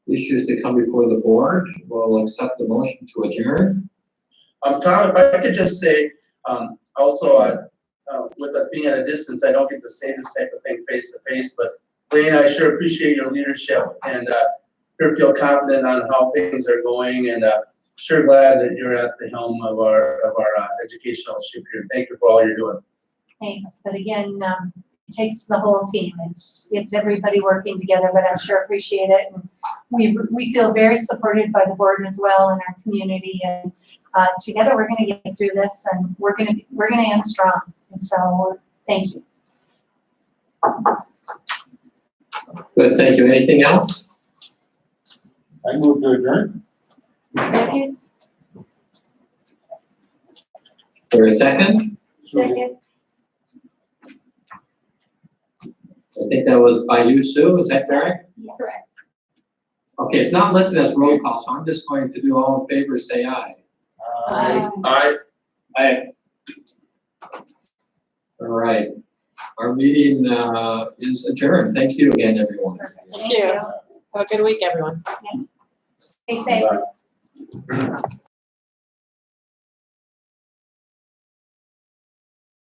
issues to come before the board, we'll accept the motion to adjourn. Um, Tom, if I could just say, um, also, uh, uh, with us being at a distance, I don't get to say this type of thing face to face, but Lane, I sure appreciate your leadership and, uh, sure feel confident on how things are going and, uh, sure glad that you're at the helm of our, of our uh, educational ship here. Thank you for all you're doing. Thanks, but again, um, it takes the whole team, it's, it's everybody working together, but I sure appreciate it. and We, we feel very supported by the board as well and our community, and, uh, together we're gonna get through this, and we're gonna, we're gonna end strong, and so, thank you. Good, thank you. Anything else? I move to adjourn. Second, For a second? second, I think that was by you, Sue, is that correct? yes. Okay, it's not listed as roll call, so I'm just going to do all in favor, say aye. Aye. Um, I, All right, our meeting, uh, is adjourned. Thank you again, everyone. perfect. Thank you. Have a good week, everyone. Yes. Stay safe.